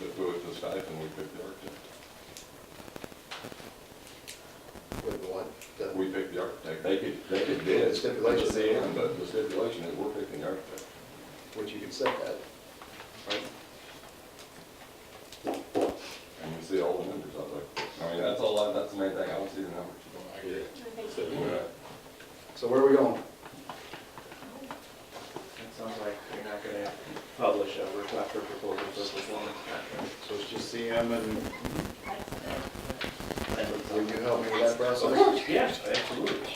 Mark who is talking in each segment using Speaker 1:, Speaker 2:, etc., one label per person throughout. Speaker 1: If it was a stipend, we pick the architect.
Speaker 2: Wait, what? The-
Speaker 1: We pick the architect. They could, they could bid.
Speaker 2: The stipulation.
Speaker 1: It's the end, but the stipulation is we're picking the architect.
Speaker 2: Which you can set that, right?
Speaker 1: And you see all the numbers out there. I mean, that's all, I- that's the main thing. I don't see the numbers.
Speaker 3: Thank you.
Speaker 1: Yeah.
Speaker 2: So where are we going?
Speaker 4: It sounds like you're not gonna publish a request for proposal for performance contract.
Speaker 2: So it's just CM and,
Speaker 4: That looks
Speaker 2: will
Speaker 4: like-
Speaker 2: you help me with that process?
Speaker 4: Yeah, absolutely.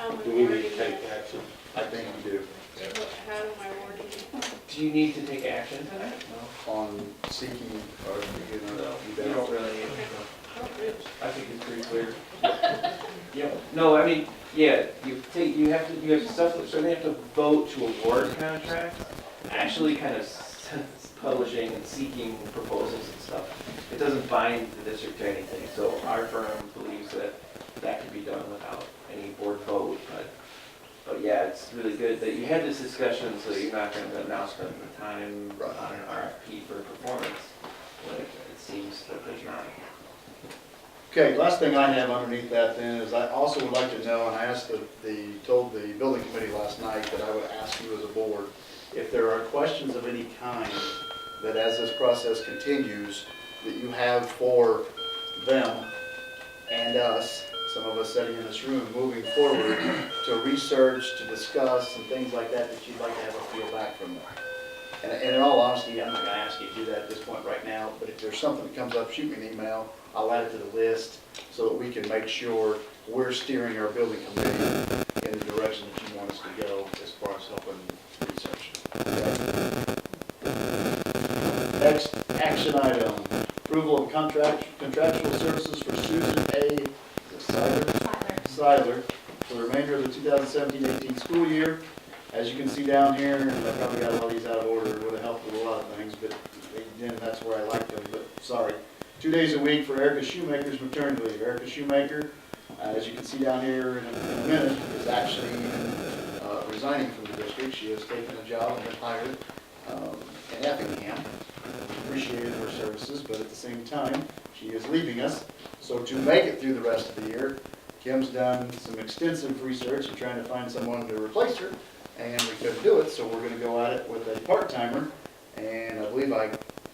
Speaker 3: Um,
Speaker 5: Do we need
Speaker 3: wording
Speaker 5: to take
Speaker 3: it.
Speaker 5: action?
Speaker 2: I think you do.
Speaker 3: What- How am I wording it?
Speaker 4: Do you need to take action tonight?
Speaker 2: On seeking, or, you know, you
Speaker 4: You don't
Speaker 2: don't-
Speaker 4: really,
Speaker 3: Oh, oops.
Speaker 4: I think it's pretty clear. Yeah, no, I mean, yeah, you take, you have to, you have stuff, so they have to vote to award contract. Actually kind of publishing and seeking proposals and stuff. It doesn't bind the district to anything, so our firm believes that that could be done without any board vote, but, but yeah, it's really good that you had this discussion, so you're not gonna announce it at the time
Speaker 2: Right.
Speaker 4: on an RFP for performance. But it seems that there's not.
Speaker 2: Okay, last thing I have underneath that then is I also would like to know, and I asked the, the, told the building committee last night that I would ask you as a board, if there are questions of any kind that as this process continues, that you have for them and us, some of us sitting in this room, moving forward, to research, to discuss, and things like that, that you'd like to have a feel back from them. And, and in all honesty, I'm not gonna ask you to do that at this point right now, but if there's something that comes up, shoot me an email, I'll add it to the list so that we can make sure we're steering our building committee in the direction that you want us to go as far as helping research. Okay? Next action item, approval of contract, contractual services for Susan A. Sider. Siler for the remainder of the 2017-18 school year. As you can see down here, and I probably got a lot of these out of order, it would have helped with a lot of things, but again, that's where I like them, but sorry. Two days a week for Erica Shoemaker's maternity leave. Erica Shoemaker, uh, as you can see down here in a in a minute, is actually uh, resigning from the district. She has taken a job and been hired um, in Effingham. Appreciated her services, but at the same time, she is leaving us. So to make it through the rest of the year, Kim's done some extensive research and trying to find someone to replace her, and we couldn't do it, so we're gonna go at it with a part-timer. And I believe I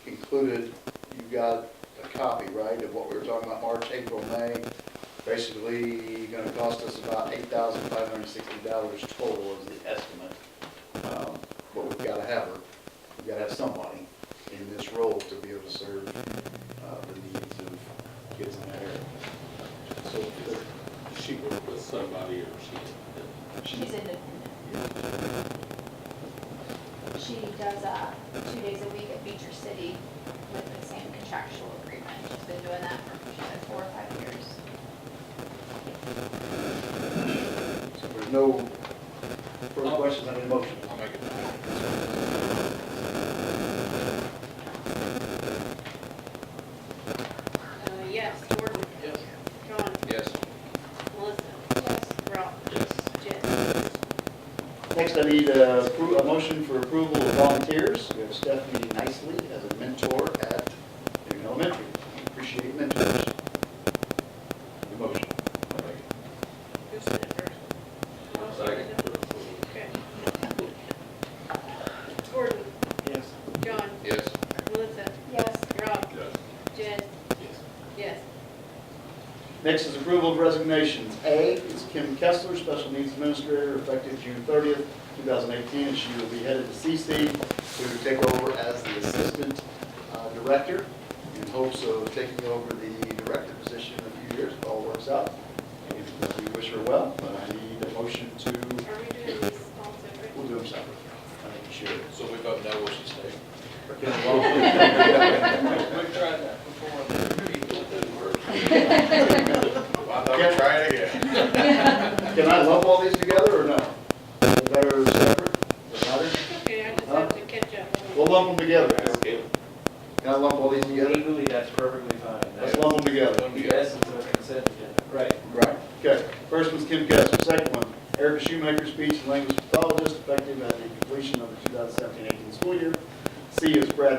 Speaker 2: included, you got a copy, right, of what we were talking about, March, April, May. Basically, gonna cost us about eight thousand five hundred sixty dollars total is the estimate. Um, But we've gotta have her, we've gotta have somebody in this role to be able to serve uh, the needs of kids in that area. So the-
Speaker 5: Does she work with somebody or she?
Speaker 6: She's independent. She does, uh, two days a week at Beecher City with the same contractual agreement. She's been doing that for, she's like four or five years.
Speaker 2: So if there's no further questions on the motion. I'll make it.
Speaker 3: Uh, yes, Jordan. Yes. John.
Speaker 2: Yes.
Speaker 3: Melissa. Yes. Rob.
Speaker 5: Yes.
Speaker 3: Jess.
Speaker 2: Next, I need a, appro- a motion for approval of volunteers. We have Stephanie Nicely as a mentor at Newton Elementary. We Appreciate mentors. The motion.
Speaker 3: Who's the first? Oh,
Speaker 1: Second.
Speaker 3: Okay. Jordan.
Speaker 4: Yes.
Speaker 3: John.
Speaker 1: Yes.
Speaker 3: Melissa.
Speaker 6: Yes.
Speaker 3: Rob.
Speaker 1: Yes.
Speaker 3: Jess. Yes.
Speaker 2: Next is approval of resignations. A is Kim Kessler, Special Needs Administrator, effective June 30th, 2018, and she will be headed to CC to take over as the Assistant uh, Director in hopes of taking over the Director position in a few years if all works out. And we wish her well, but I need a motion to,
Speaker 3: Are we doing these all separate?
Speaker 2: we'll do them separately. I think you should.
Speaker 5: So we both know where she's staying. We've tried that before. I thought
Speaker 2: we'd
Speaker 5: try it again.
Speaker 2: Can I lump all these together or no? Better separate, does it matter?
Speaker 3: Okay, I just have to catch up.
Speaker 2: We'll lump them together.
Speaker 5: Okay.
Speaker 2: Can I lump all these together?
Speaker 4: Legally, that's perfectly fine.
Speaker 2: Let's lump them together.
Speaker 4: That's the essence of a consent agenda. Right.
Speaker 2: Right, okay. First one's Kim Kessler, second one, Erica Shoemaker, speech and language pathologist, effective at the completion of the 2017-18 school year. C is Brad